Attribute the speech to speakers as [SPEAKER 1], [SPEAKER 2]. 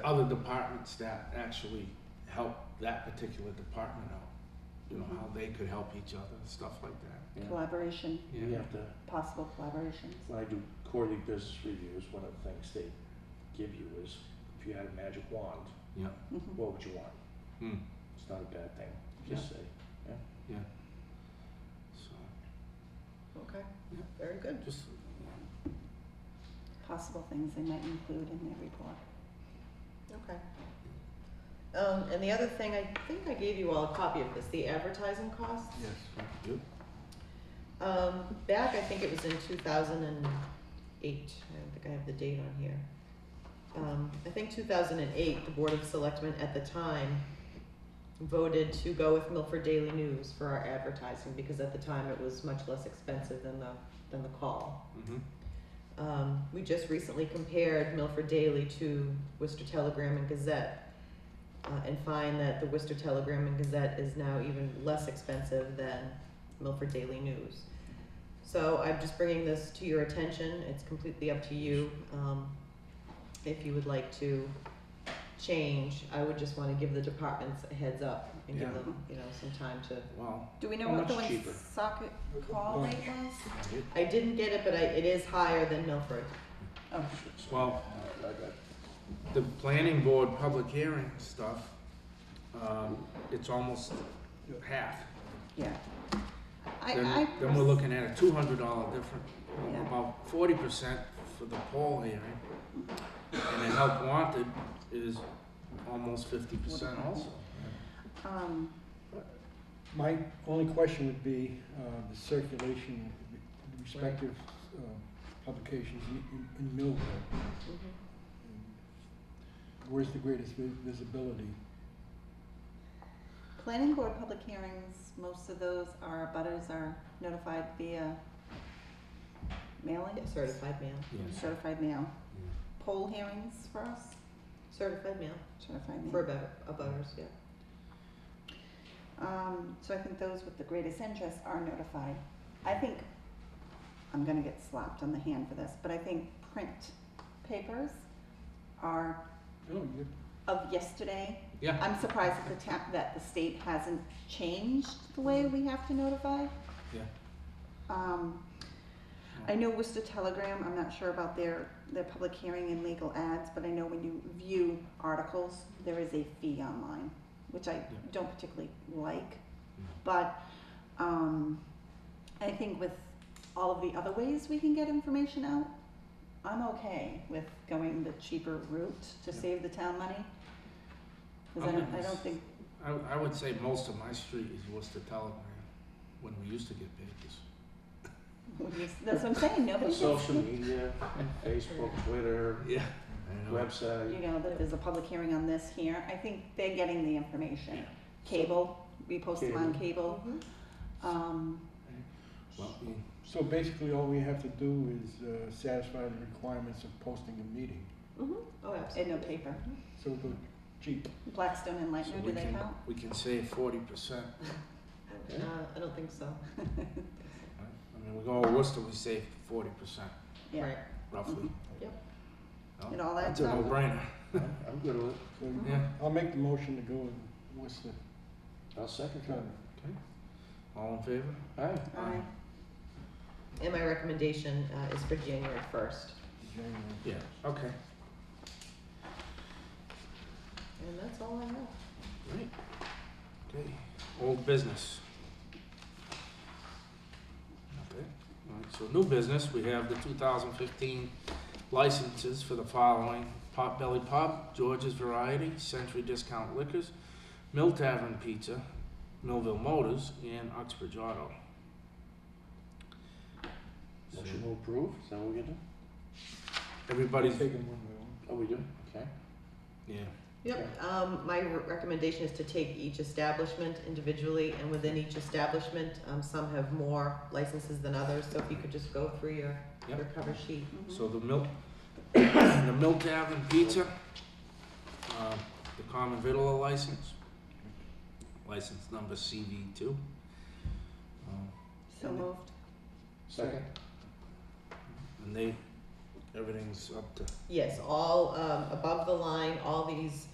[SPEAKER 1] other departments that actually help that particular department out. You know, how they could help each other, stuff like that.
[SPEAKER 2] Yeah.
[SPEAKER 3] Collaboration,
[SPEAKER 1] Yeah.
[SPEAKER 2] We have to,
[SPEAKER 3] possible collaborations.
[SPEAKER 2] when I do quarterly business reviews, one of the things they give you is, if you had a magic wand,
[SPEAKER 1] Yeah.
[SPEAKER 3] Mhm.
[SPEAKER 2] what would you want?
[SPEAKER 1] Hmm.
[SPEAKER 2] It's not a bad thing, just say,
[SPEAKER 1] Yeah. So
[SPEAKER 3] Okay,
[SPEAKER 1] Yeah.
[SPEAKER 3] very good.
[SPEAKER 1] just
[SPEAKER 3] Possible things they might include in their report.
[SPEAKER 4] Okay. Um, and the other thing, I think I gave you all a copy of this, the advertising costs.
[SPEAKER 1] yes. Good.
[SPEAKER 4] Um, back, I think it was in two thousand and eight, I don't think I have the date on here. Um, I think two thousand and eight, the Board of Selectmen at the time voted to go with Milford Daily News for our advertising, because at the time it was much less expensive than the, than the call.
[SPEAKER 1] Mm-hmm.
[SPEAKER 4] Um, we just recently compared Milford Daily to Worcester Telegram and Gazette uh, and find that the Worcester Telegram and Gazette is now even less expensive than Milford Daily News. So I'm just bringing this to your attention. It's completely up to you. Um, if you would like to change, I would just want to give the departments a heads up and give
[SPEAKER 1] Yeah.
[SPEAKER 4] them, you know, some time to.
[SPEAKER 1] Well,
[SPEAKER 3] Do we know
[SPEAKER 2] How
[SPEAKER 3] what the
[SPEAKER 2] much
[SPEAKER 3] one
[SPEAKER 2] cheaper?
[SPEAKER 3] socket call rate was?
[SPEAKER 1] it,
[SPEAKER 4] I didn't get it, but I, it is higher than Milford.
[SPEAKER 3] Oh,
[SPEAKER 1] well,
[SPEAKER 2] I I got
[SPEAKER 1] the planning board public hearing stuff, um, it's almost half.
[SPEAKER 3] yeah. I,
[SPEAKER 1] Then,
[SPEAKER 3] I.
[SPEAKER 1] then we're looking at a two hundred dollar difference,
[SPEAKER 3] Yeah.
[SPEAKER 1] about forty percent for the poll hearing. And the help wanted is almost fifty percent also.
[SPEAKER 3] Um,
[SPEAKER 5] My only question would be uh, the circulation of the respective uh, publications in- in- in Millville.
[SPEAKER 4] Mm-hmm.
[SPEAKER 5] And Where's the greatest vi- visibility?
[SPEAKER 3] planning board public hearings, most of those are, butters are notified via mailing,
[SPEAKER 4] Certified mail.
[SPEAKER 1] Yes.
[SPEAKER 3] certified mail. Poll hearings for us,
[SPEAKER 4] Certified mail.
[SPEAKER 3] certified
[SPEAKER 4] For
[SPEAKER 3] mail.
[SPEAKER 4] about a butters, yeah.
[SPEAKER 3] Um, so I think those with the greatest interest are notified. I think, I'm gonna get slapped on the hand for this, but I think print papers are
[SPEAKER 5] Oh, you
[SPEAKER 3] of yesterday.
[SPEAKER 1] Yeah.
[SPEAKER 3] I'm surprised that the ta- that the state hasn't changed the way we have to notify.
[SPEAKER 1] Yeah.
[SPEAKER 3] Um, I know Worcester Telegram, I'm not sure about their, their public hearing and legal ads, but I know when you view articles, there is a fee online, which I don't particularly like.
[SPEAKER 1] Mm.
[SPEAKER 3] But, um, I think with all of the other ways we can get information out, I'm okay with going the cheaper route to
[SPEAKER 1] Yeah.
[SPEAKER 3] save the town money. Cause I
[SPEAKER 1] I'm
[SPEAKER 3] don't, I
[SPEAKER 1] gonna
[SPEAKER 3] don't
[SPEAKER 1] s-
[SPEAKER 3] think,
[SPEAKER 1] I, I would say most of my street is Worcester Telegram, when we used to get papers.
[SPEAKER 3] that's what I'm saying, nobody
[SPEAKER 2] it.
[SPEAKER 3] gets,
[SPEAKER 2] Social media, Facebook, Twitter,
[SPEAKER 1] Yeah.
[SPEAKER 3] you
[SPEAKER 2] website,
[SPEAKER 3] know, that there's a public hearing on this here, I think they're getting the information. Cable, we post them on cable, um,
[SPEAKER 1] Well, we-
[SPEAKER 5] So basically, all we have to do is uh, satisfy the requirements of posting a meeting.
[SPEAKER 4] Mm-hmm. Oh,
[SPEAKER 3] and
[SPEAKER 4] absolutely.
[SPEAKER 3] no paper.
[SPEAKER 5] So go cheap.
[SPEAKER 3] Blackstone and
[SPEAKER 1] so
[SPEAKER 3] Lightner,
[SPEAKER 1] we
[SPEAKER 3] do they
[SPEAKER 1] can,
[SPEAKER 3] count?
[SPEAKER 1] we can save forty percent.
[SPEAKER 4] Uh, I don't think so.
[SPEAKER 1] I mean, we go to Worcester, we save forty percent
[SPEAKER 3] Yeah,
[SPEAKER 4] Right.
[SPEAKER 1] roughly.
[SPEAKER 4] Yep.
[SPEAKER 1] No,
[SPEAKER 3] Mm-hmm. it all
[SPEAKER 5] That's
[SPEAKER 3] adds
[SPEAKER 5] a
[SPEAKER 3] up.
[SPEAKER 1] No brainer,
[SPEAKER 2] I'm I'm good with it,
[SPEAKER 5] So
[SPEAKER 1] yeah.
[SPEAKER 5] I'll make the motion to go with Worcester.
[SPEAKER 2] I'll second
[SPEAKER 5] County.
[SPEAKER 2] that.
[SPEAKER 1] All in favor?
[SPEAKER 2] Aye.
[SPEAKER 3] Aye.
[SPEAKER 4] And my recommendation uh, is for January first,
[SPEAKER 5] January.
[SPEAKER 1] Yeah, okay.
[SPEAKER 4] and that's all I have.
[SPEAKER 1] Right. Okay, old business. Okay, alright, so new business, we have the two thousand fifteen licenses for the following. Potbelly Pub, George's Variety, Century Discount Liquors, Mill Tavern Pizza, Millville Motors, and Oxbridge Auto. So,
[SPEAKER 2] Motion to approve, is that what we do?
[SPEAKER 1] Everybody's,
[SPEAKER 5] Taking one by one.
[SPEAKER 2] Oh, we do, okay.
[SPEAKER 1] yeah,
[SPEAKER 4] Yep, um, my re- recommendation is to take each establishment individually, and within each establishment, um, some have more licenses than others, so if you could just go through your,
[SPEAKER 1] Yep.
[SPEAKER 4] your cover sheet.
[SPEAKER 3] Mhm.
[SPEAKER 1] So the milk, the milk tavern pizza, uh, the common vitola license, license number CV two. Um,
[SPEAKER 3] So moved,
[SPEAKER 2] Second?
[SPEAKER 1] And they, everything's up to
[SPEAKER 4] Yes, all, um, above the line, all these